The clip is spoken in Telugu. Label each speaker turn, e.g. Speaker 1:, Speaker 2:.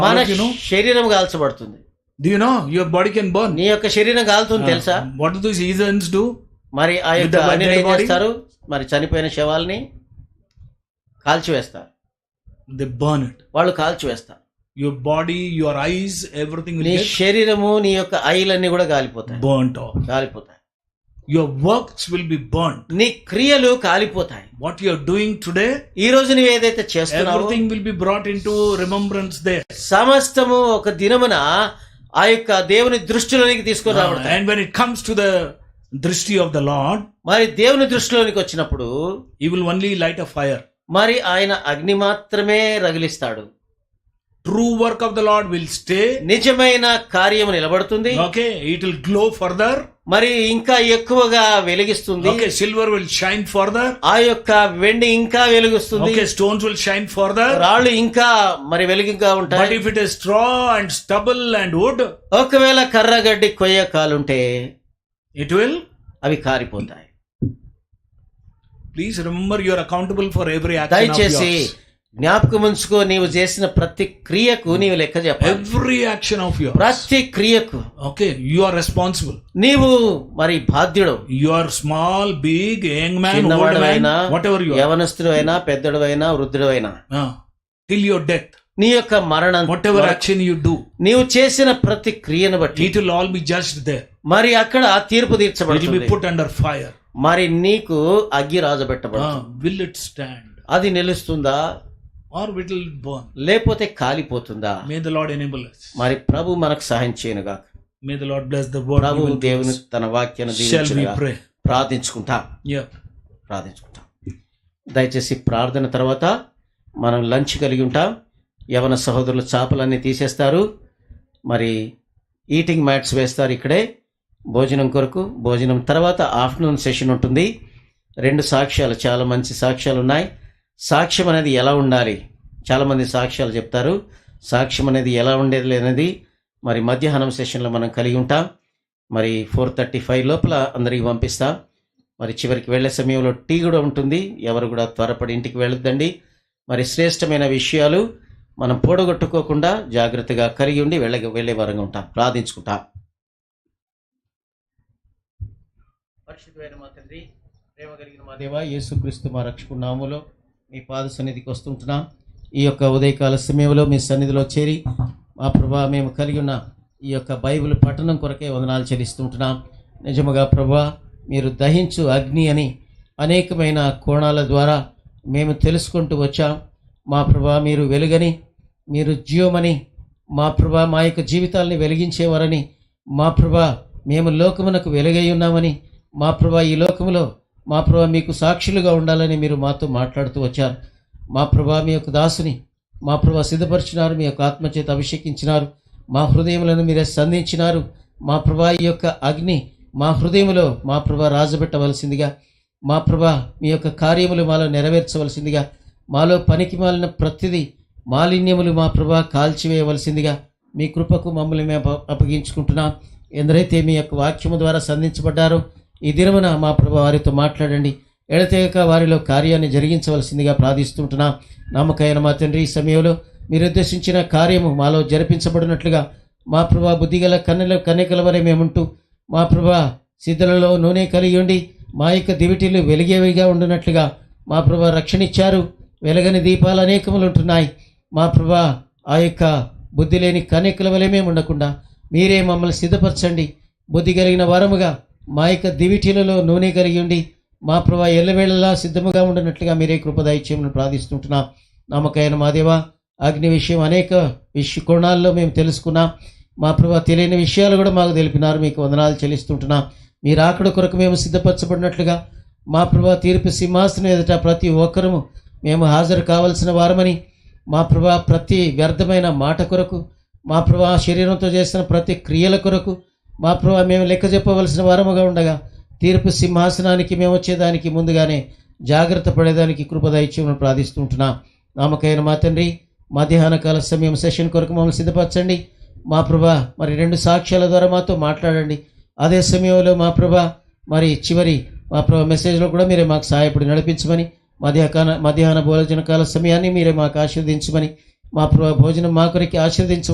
Speaker 1: మన
Speaker 2: What you know?
Speaker 1: శరీరం కాల్చబడుతుంది
Speaker 2: Do you know your body can burn?
Speaker 1: నీ యొక్క శరీరం కాలుతుంది తెలుసా
Speaker 2: Uh, what do these heathens do?
Speaker 1: మరి ఆ
Speaker 2: With
Speaker 1: యొక్క
Speaker 2: the
Speaker 1: అన్నిటిని ఏం
Speaker 2: dead body?
Speaker 1: చేస్తారు మరి చనిపోయిన శవాల్ని కాల్చివేస్తారు
Speaker 2: They burn it.
Speaker 1: వాళ్ళు కాల్చివేస్తారు
Speaker 2: Your body, your eyes, everything will
Speaker 1: నీ
Speaker 2: get
Speaker 1: శరీరము నీ యొక్క ఐలన్నీ కూడా కాలిపోతాయి
Speaker 2: burnt off.
Speaker 1: కాలిపోతాయి
Speaker 2: Your works will be burnt.
Speaker 1: నీ క్రియలు కాలిపోతాయి
Speaker 2: What you are doing today,
Speaker 1: ఈ రోజు నువ్వు ఏదైతే చేస్తున్నావో
Speaker 2: everything will be brought into remembrance there.
Speaker 1: సమస్తము ఒక దినమున ఆ యొక్క దేవుని దృష్టిలోనికి తీసుకొని
Speaker 2: Uh,
Speaker 1: రాబడతాయి
Speaker 2: and when it comes to the drishti of the Lord,
Speaker 1: మరి దేవుని దృష్టిలోనికి వచ్చినప్పుడు
Speaker 2: He will only light a fire.
Speaker 1: మరి ఆయన అగ్ని మాత్రమే రగిలిస్తాడు
Speaker 2: True work of the Lord will stay.
Speaker 1: నిజమైన కార్యము నిలబడుతుంది
Speaker 2: Okay, it will glow further.
Speaker 1: మరి ఇంకా ఎక్కువగా వెలిగిస్తుంది
Speaker 2: Okay, silver will shine further.
Speaker 1: ఆ యొక్క వెండి ఇంకా వెలుగుస్తుంది
Speaker 2: Okay, stones will shine further.
Speaker 1: రాళ్ళు ఇంకా మరి వెలుగుగా
Speaker 2: But
Speaker 1: ఉంటాయి
Speaker 2: if it is straw and stubble and wood,
Speaker 1: ఒకవేళ కర్రగడ్డి కొయ్య కాలుంటే
Speaker 2: it will.
Speaker 1: అవి కారిపోతాయి
Speaker 2: Please remember you are accountable for every action of
Speaker 1: దయచేసి
Speaker 2: yours.
Speaker 1: జ్ఞాపకం ఉంచుకో నీవు చేసిన ప్రతి క్రియకు నీవు లెక్క చెప్పాలి
Speaker 2: Every action of yours.
Speaker 1: ప్రతి క్రియకు
Speaker 2: Okay, you are responsible.
Speaker 1: నీవు మరి బాధ్యుడు
Speaker 2: You are small, big, young man, old man,
Speaker 1: చిన్నవాడవైనా
Speaker 2: whatever you are.
Speaker 1: యవనస్తుడు అయినా పెద్దడు అయినా వృద్ధుడు అయినా
Speaker 2: Ah, till your death,
Speaker 1: నీ యొక్క మరణం
Speaker 2: whatever action you do,
Speaker 1: నీవు చేసిన ప్రతి క్రియను బట్టి
Speaker 2: it will all be judged there.
Speaker 1: మరి అక్కడ తీర్పు
Speaker 2: It will
Speaker 1: తీర్చబడుతుంది
Speaker 2: be put under fire.
Speaker 1: మరి నీకు అగ్గి రాజబెట్టబడుతుంది
Speaker 2: Ah, will it stand
Speaker 1: అది నిలుస్తుందా
Speaker 2: or will it burn?
Speaker 1: లేకపోతే కాలిపోతుందా
Speaker 2: May the Lord enable us.
Speaker 1: మరి ప్రభు మనకు సహాయం చేయనుగా
Speaker 2: May the Lord bless the word.
Speaker 1: Prabhu
Speaker 2: given to
Speaker 1: దేవుని
Speaker 2: us.
Speaker 1: తన వాక్యాన్ని
Speaker 2: Shall we
Speaker 1: దీవించునుగా.
Speaker 2: pray?
Speaker 1: ప్రార్థించుకుంటాం
Speaker 2: Yeah.
Speaker 1: ప్రార్థించుకుంటాం దయచేసి ప్రార్థన తర్వాత మనం లంచ్ కలిగి ఉంటాం యవన సహోదరులు చేపలన్నీ తీసేస్తారు మరి ఈటింగ్ మ్యాట్స్ వేస్తారు ఇక్కడే భోజనం కొరకు భోజనం తర్వాత ఆఫ్టర్నూన్ సెషన్ ఉంటుంది రెండు సాక్ష్యాలు చాలా మంచి సాక్ష్యాలు ఉన్నాయి సాక్ష్యం అనేది ఎలా ఉండాలి చాలామంది సాక్ష్యాలు చెప్తారు సాక్ష్యం అనేది ఎలా ఉండేది అనేది మరి మధ్యాహ్నం సెషన్లో మనం కలిగి ఉంటాం మరి ఫోర్ థర్టీ ఫైవ్ లోపల అందరికీ పంపిస్తాం మరి చివరికి వెళ్ళే సమయంలో టీ కూడా ఉంటుంది ఎవరు కూడా త్వరపడి ఇంటికి వెళ్ళొద్దండి మరి శ్రేష్టమైన విషయాలు మనం పోడగొట్టుకోకుండా జాగ్రత్తగా కలిగి ఉండి వెళ్ళ వెళ్ళే వారంగా ఉంటాం ప్రార్థించుకుంటాం పరిశుద్ధమైన మా తండ్రి ప్రేమ కలిగిన మా దేవ యేసుక్రీస్తు మా రక్షకు నామములో మీ పాద సన్నిధికి వస్తుంటున్నాం ఈ యొక్క ఉదయకాల సమయంలో మీ సన్నిధిలో చేరి మా ప్రభా మేము కలిగి ఉన్న ఈ యొక్క బైబిల్ పఠనం కొరకే వందనాలు చెల్లిస్తుంటున్నాం నిజముగా ప్రభా మీరు దహించు అగ్ని అని అనేకమైన కోణాల ద్వారా మేము తెలుసుకుంటూ వచ్చాం మా ప్రభా మీరు వెలుగని మీరు జీవమని మా ప్రభా మా యొక్క జీవితాల్ని వెలిగించేవారని మా ప్రభా మేము లోకమునకు వెలుగై ఉన్నామని మా ప్రభా ఈ లోకములో మా ప్రభా మీకు సాక్షులుగా ఉండాలని మీరు మాతో మాట్లాడుతూ వచ్చారు మా ప్రభా మీ యొక్క దాసుని మా ప్రభా సిద్ధపరిచినారు మీ యొక్క ఆత్మచేత అభిషేకించినారు మా హృదయములను మీరే సంధించినారు మా ప్రభా ఈ యొక్క అగ్ని మా హృదయములో మా ప్రభా రాజబెట్టవలసిందిగా మా ప్రభా మీ యొక్క కార్యములు మాలో నెరవేర్చవలసిందిగా మాలో పనికి మాలిన ప్రతిదీ మాలిన్యములు మా ప్రభా కాల్చివేయవలసిందిగా మీ కృపకు మమ్మల్ని మేము అప్ప- అప్పగించుకుంటున్నాం ఎందరైతే మీ యొక్క వాక్యము ద్వారా సంధించబడ్డారో ఈ దినమున మా ప్రభా వారితో మాట్లాడండి ఎడతెగక వారిలో కార్యాన్ని జరిగించవలసిందిగా ప్రార్థిస్తుంటున్నాం నమ్మకైన మా తండ్రి ఈ సమయంలో మీరు ఉద్దేశించిన కార్యము మాలో జరిపించబడినట్లుగా మా ప్రభా బుద్ధిగల కన్నెల కన్యకల వరే మేముంటూ మా ప్రభా సిద్ధులలో నూనె కలిగి ఉండి మా యొక్క దివిటీలు వెలిగేవిగా ఉండినట్లుగా మా ప్రభా రక్షణ ఇచ్చారు వెలగని దీపాలు అనేకములు ఉంటున్నాయి మా ప్రభా ఆ యొక్క బుద్ధి లేని కన్యకల వలె మేము ఉండకుండా మీరే మమ్మల్ని సిద్ధపరచండి బుద్ధి కలిగిన వరముగా మా యొక్క దివిటీలలో నూనె కలిగి ఉండి మా ప్రభా ఎల్లవేళలా సిద్ధముగా ఉండనట్లుగా మీరే కృపదాయిత్యమును ప్రార్థిస్తుంటున్నాం నమ్మకైన మా దేవా అగ్ని విషయం అనేక విష కోణాల్లో మేము తెలుసుకున్నాం మా ప్రభా తెలియని విషయాలు కూడా మాకు తెలిపినారు మీకు వందనాలు చెల్లిస్తుంటున్నాం మీ రాకడ కొరకు మేము సిద్ధపరచబడినట్లుగా మా ప్రభా తీర్పు సింహాసనం ఎదుట ప్రతి ఒక్కరము మేము హాజరు కావలసిన వారమని మా ప్రభా ప్రతి వ్యర్థమైన మాట కొరకు మా ప్రభా శరీరంతో చేసిన ప్రతి క్రియల కొరకు మా ప్రభా మేము లెక్క చెప్పవలసిన వారముగా ఉండగా తీర్పు సింహాసనానికి మేము వచ్చేదానికి ముందుగానే జాగ్రత్త పడేదానికి కృపదైత్యమును ప్రార్థిస్తుంటున్నాం నామకైన మా తండ్రి మధ్యాహ్న కాల సమయం సెషన్ కొరకు మమ్మల్ని సిద్ధపరచండి మా ప్రభా మరి రెండు సాక్ష్యాల ద్వారా మాతో మాట్లాడండి అదే సమయంలో మా ప్రభా మరి చివరి మా ప్రభా మెసేజ్లో కూడా మీరే మాకు సహాయపడి నడిపించమని మధ్యాహ్న మధ్యాహ్న భోజన కాల సమయాన్ని మీరే మాకు ఆశీర్వదించమని మా ప్రభా భోజనం మా కొరికి ఆశీర్వదించమని